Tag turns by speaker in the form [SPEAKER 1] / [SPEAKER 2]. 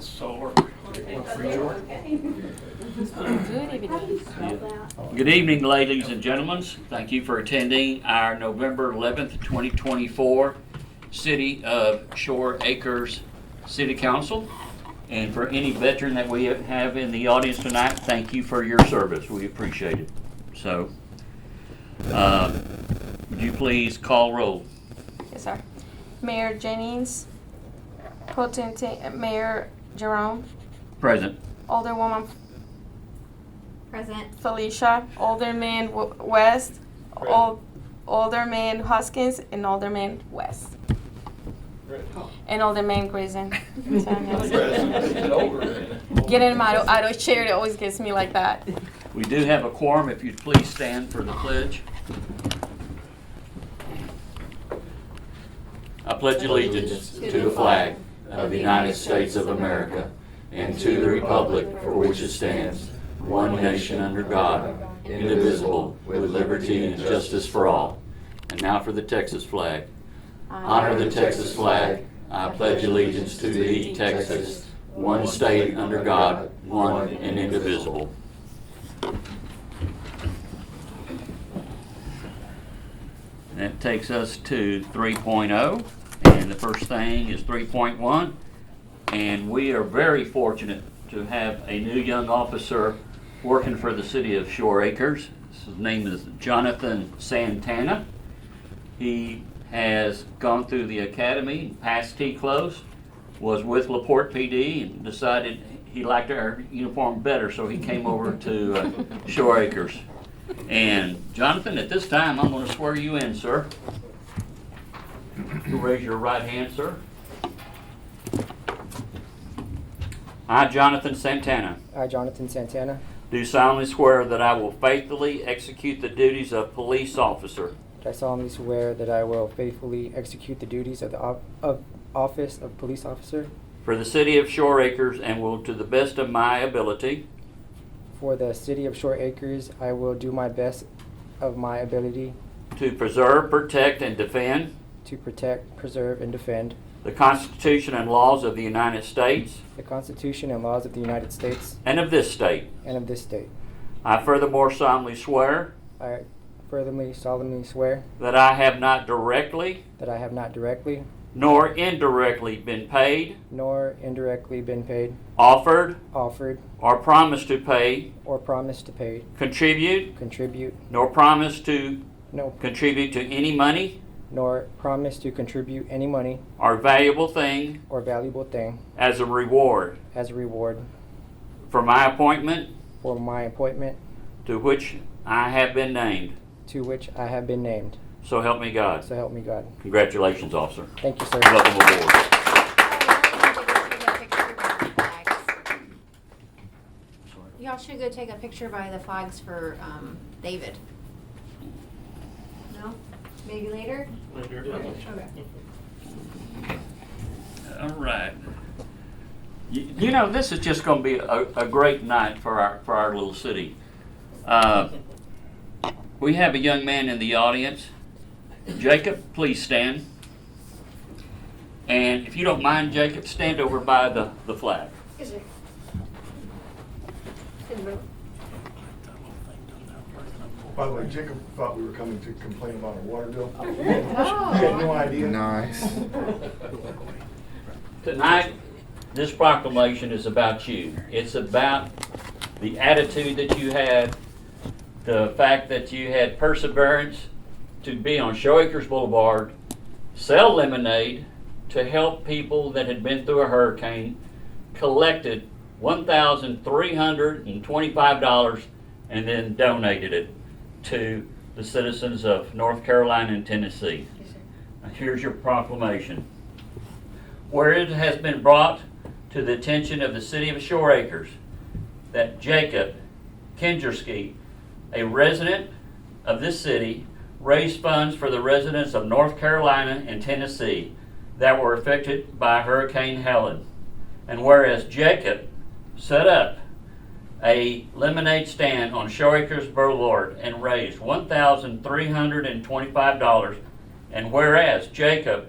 [SPEAKER 1] Solar.
[SPEAKER 2] Good evening.
[SPEAKER 1] Good evening, ladies and gentlemen. Thank you for attending our November 11th, 2024 City of Shore Acres City Council. And for any veteran that we have in the audience tonight, thank you for your service. We appreciate it. So, uh, would you please call roll?
[SPEAKER 2] Yes, sir. Mayor Jennings, Potentate, uh, Mayor Jerome,
[SPEAKER 1] Present.
[SPEAKER 2] Alderwoman
[SPEAKER 3] Present.
[SPEAKER 2] Felicia, Alderman W- West, Al- Alderman Hoskins, and Alderman West. And Alderman Grayson. Getting him out of, out of chair, it always gets me like that.
[SPEAKER 1] We do have a quorum, if you'd please stand for the pledge. I pledge allegiance
[SPEAKER 4] to the flag of the United States of America and to the republic for which it stands, one nation under God, indivisible, with liberty and justice for all.
[SPEAKER 1] And now for the Texas flag. Honor the Texas flag. I pledge allegiance to thee, Texas, one state under God, one and indivisible. And that takes us to 3.0, and the first thing is 3.1. And we are very fortunate to have a new young officer working for the city of Shore Acres. His name is Jonathan Santana. He has gone through the academy, passed T-close, was with Laporte PD and decided he liked our uniform better, so he came over to uh, Shore Acres. And Jonathan, at this time, I'm gonna swear you in, sir. You Raise your right hand, sir. I, Jonathan Santana,
[SPEAKER 5] I, Jonathan Santana,
[SPEAKER 1] do solemnly swear that I will faithfully execute the duties of police officer
[SPEAKER 5] do solemnly swear that I will faithfully execute the duties of the op- of office of police officer
[SPEAKER 1] For the city of Shore Acres and will, to the best of my ability,
[SPEAKER 5] for the city of Short Acres. I will do my best of my ability
[SPEAKER 1] to preserve, protect, and defend
[SPEAKER 5] to protect, preserve, and defend
[SPEAKER 1] the Constitution and laws of the United States
[SPEAKER 5] the Constitution and laws of the United States
[SPEAKER 1] and of this state.
[SPEAKER 5] and of this state.
[SPEAKER 1] I furthermore solemnly swear
[SPEAKER 5] I furthermore solemnly swear
[SPEAKER 1] that I have not directly
[SPEAKER 5] that I have not directly
[SPEAKER 1] nor indirectly been paid,
[SPEAKER 5] nor indirectly been paid,
[SPEAKER 1] offered,
[SPEAKER 5] offered,
[SPEAKER 1] or promised to pay,
[SPEAKER 5] or promised to pay,
[SPEAKER 1] contribute,
[SPEAKER 5] contribute,
[SPEAKER 1] nor promised to
[SPEAKER 5] no,
[SPEAKER 1] contribute to any money
[SPEAKER 5] nor promised to contribute any money
[SPEAKER 1] or valuable thing
[SPEAKER 5] or valuable thing
[SPEAKER 1] as a reward
[SPEAKER 5] as a reward
[SPEAKER 1] for my appointment
[SPEAKER 5] for my appointment
[SPEAKER 1] to which I have been named.
[SPEAKER 5] to which I have been named.
[SPEAKER 1] So help me God.
[SPEAKER 5] So help me God.
[SPEAKER 1] Congratulations, officer.
[SPEAKER 5] Thank you, sir.
[SPEAKER 1] Welcome aboard.
[SPEAKER 3] Y'all should go take a picture by the flags for um, David. No? Maybe later? Okay.
[SPEAKER 1] All right. You, you know, this is just going to be a, a great night for our for our little city. Uh, we have a young man in the audience. Jacob, please stand. And if you don't mind, Jacob, stand over by the, the flag.
[SPEAKER 3] Is it? Is it?
[SPEAKER 6] By the way, Jacob thought we were coming to complain about our water bill. He had no
[SPEAKER 3] Oh.
[SPEAKER 6] idea.
[SPEAKER 4] Nice.
[SPEAKER 1] Tonight, this proclamation is about you. It's about the attitude that you had, the fact that you had perseverance to be on Show Acres Boulevard, sell lemonade, to help people that had been through a hurricane, collected $1,325 and then donated it to the citizens of North Carolina and Tennessee. Here's your proclamation where it has been brought to the attention of the city of Shore Acres that Jacob Kindersky, a resident of this city, raised funds for the residents of North Carolina and Tennessee that were affected by Hurricane Helen. And whereas Jacob set up a lemonade stand on Shore Acres Boulevard and raised $1,325, and whereas Jacob